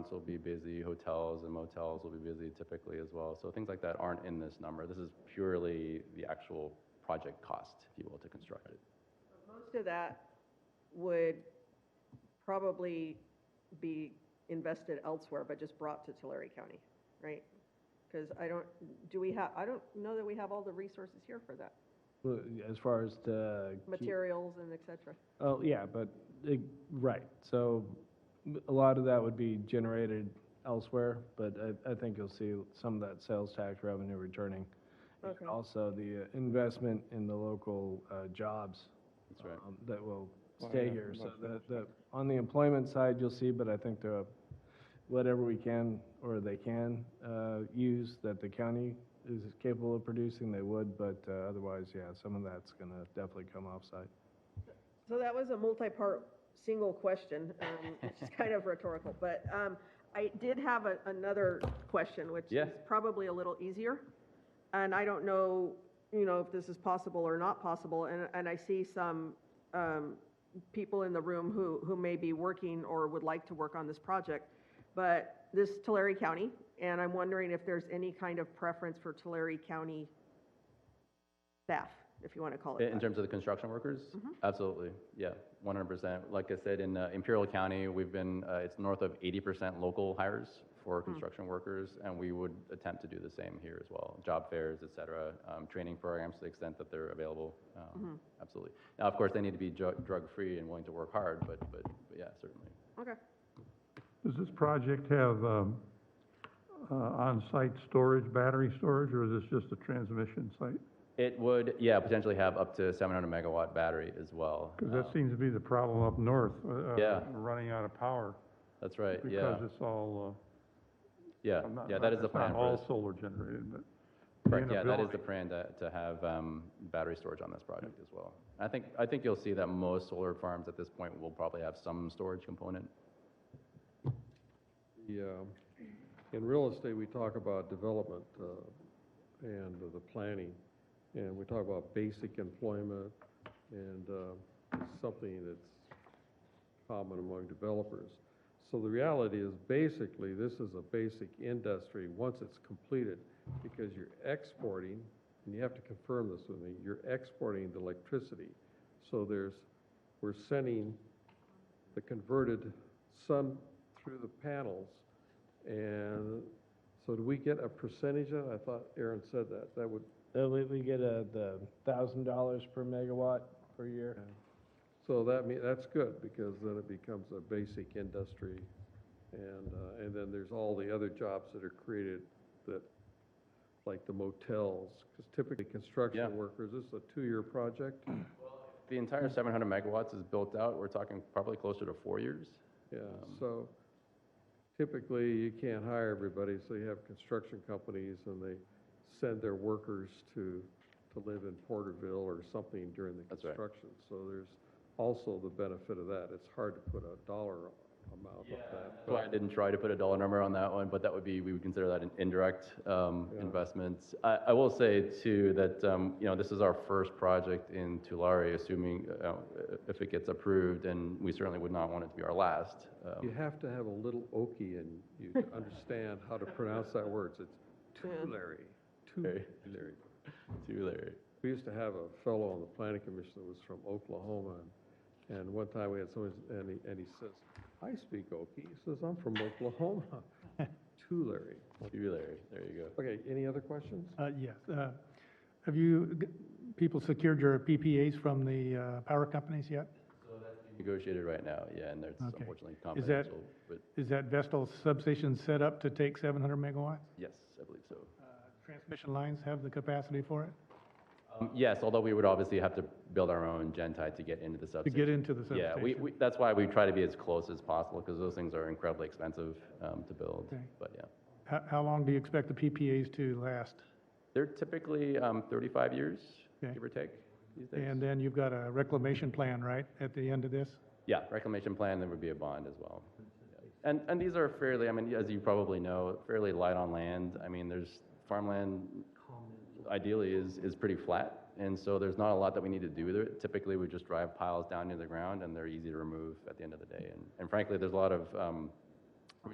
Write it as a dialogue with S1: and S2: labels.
S1: restaurants will be busy, hotels and motels will be busy typically as well. So things like that aren't in this number. This is purely the actual project cost, if you will, to construct it.
S2: Most of that would probably be invested elsewhere, but just brought to Tulare County, right? Because I don't, do we have, I don't know that we have all the resources here for that,
S3: Well, As far as the. key-
S2: materials and et cetera.
S3: Oh, yeah, but, uh, right, so m- a lot of that would be generated elsewhere, but I, I think you'll see some of that sales tax revenue returning. And
S2: Okay.
S3: Also, the uh, investment in the local uh, jobs.
S1: That's right.
S3: um, That will
S4: Well,
S3: stay
S4: yeah,
S3: here, so
S4: most
S3: the, the, on the employment side, you'll see, but I think the, whatever we can, or they can, uh, use that the county is capable of producing, they would, but uh, otherwise, yeah, some of that's gonna definitely come offsite.
S2: So that was a multi-part, single question, um, which is kind of rhetorical, but um, I did have a- another question, which
S1: Yeah.
S2: is probably a little easier. And I don't know, you know, if this is possible or not possible, and, and I see some um, people in the room who, who may be working or would like to work on this project, but this is Tulare County, and I'm wondering if there's any kind of preference for Tulare County staff, if you want to call it
S1: In in
S2: that.
S1: terms of the construction workers? Absolutely, yeah, one hundred percent. Like I said, in uh, Imperial County, we've been, uh, it's north of eighty percent local hires for construction workers, and we would attempt to do the same here as well. Job fairs, et cetera, um, training programs to the extent that they're available, um, absolutely. Now, of course, they need to be drug, drug-free and willing to work hard, but, but, but yeah, certainly.
S2: Okay.
S5: Does this project have um, uh, on-site storage, battery storage, or is this just a transmission site?
S1: It would, yeah, potentially have up to seven hundred megawatt battery as well.
S5: Because
S1: Um,
S5: that seems to be the problem up north. uh, uh,
S1: Yeah.
S5: Running out of power.
S1: That's right, yeah,
S5: Because it's all,
S1: yeah,
S5: uh, I'm not-
S1: yeah, that is
S5: it's
S1: the plan
S5: Not
S1: for
S5: all
S1: this.
S5: solar generated, but. the
S1: Correct, yeah, that is the
S5: inability-
S1: plan to, to have, um, battery storage on this project as well. I think, I think you'll see that most solar farms at this point will probably have some storage component.
S6: The, um, in real estate, we talk about development uh, and the planning, and we talk about basic employment, and uh, it's something that's common among developers. So the reality is, basically, this is a basic industry once it's completed, because you're exporting, and you have to confirm this with me, you're exporting the electricity. So there's, we're sending the converted sun through the panels. And so do we get a percentage of, it? I thought Aaron said that, that would,
S3: Uh, we, we get a, the thousand dollars per megawatt per year.
S6: so that mean, that's good, because then it becomes a basic industry. And, uh, and then there's all the other jobs that are created that, like the motels, because typically
S1: Yeah.
S6: construction workers, this is a two-year project,
S1: The entire seven hundred megawatts is built out, we're talking probably closer to four years.
S6: yeah, so typically, you can't hire everybody, so you have construction companies, and they send their workers to, to live in Porterville or something during the
S1: That's right.
S6: construction. So there's also the benefit of that, it's hard to put a dollar amount on that.
S1: So I didn't try to put a dollar number on that one, but that would be, we would consider that an indirect um,
S6: Yeah.
S1: investment. I, I will say too, that, um, you know, this is our first project in Tulare, assuming, uh, if it gets approved, and we certainly would not want it to be our last. um,
S6: You have to have a little okie in you to understand how to pronounce that word, it's
S2: Yeah.
S6: Tulare,
S1: Tulare.
S6: Tulare.
S1: Tulare.
S6: We used to have a fellow on the planning commission that was from Oklahoma, and, and one time we had someone, and he, and he says, I speak Okie. He says, I'm from Oklahoma, Tulare.
S1: Tulare, there you go.
S6: Okay, any other questions?
S7: Uh, Yes. uh, Have you, g- people secured your PPAs from the uh, power companies yet?
S1: Negotiated right now, yeah, and it's
S7: Okay.
S1: unfortunately
S7: Is that-
S1: confidential, but
S7: Is that Vestal substation set up to take 700 megawatts?
S1: yes, I believe so.
S7: Uh, Transmission lines have the capacity for it?
S1: Um, Yes, although we would obviously have to build our own Gentie to get into the
S7: To
S1: substation.
S7: get into the substation?
S1: Yeah, we, we, that's why we try to be as close as possible, because those things are incredibly expensive um, to build,
S7: Okay.
S1: but yeah.
S7: How, how long do you expect the PPAs to last?
S1: They're typically um, 35 years,
S7: Okay.
S1: give or take, these days.
S7: And uh, then you've got a reclamation plan, right, at the end of this?
S1: Yeah, reclamation plan, there would be a bond as well. And, and these are fairly, I mean, as you probably know, fairly light on land. I mean, there's, farmland ideally is, is pretty flat, and so there's not a lot that we need to do with it. Typically, we just drive piles down into the ground, and they're easy to remove at the end of the day. And, and frankly, there's a lot of um,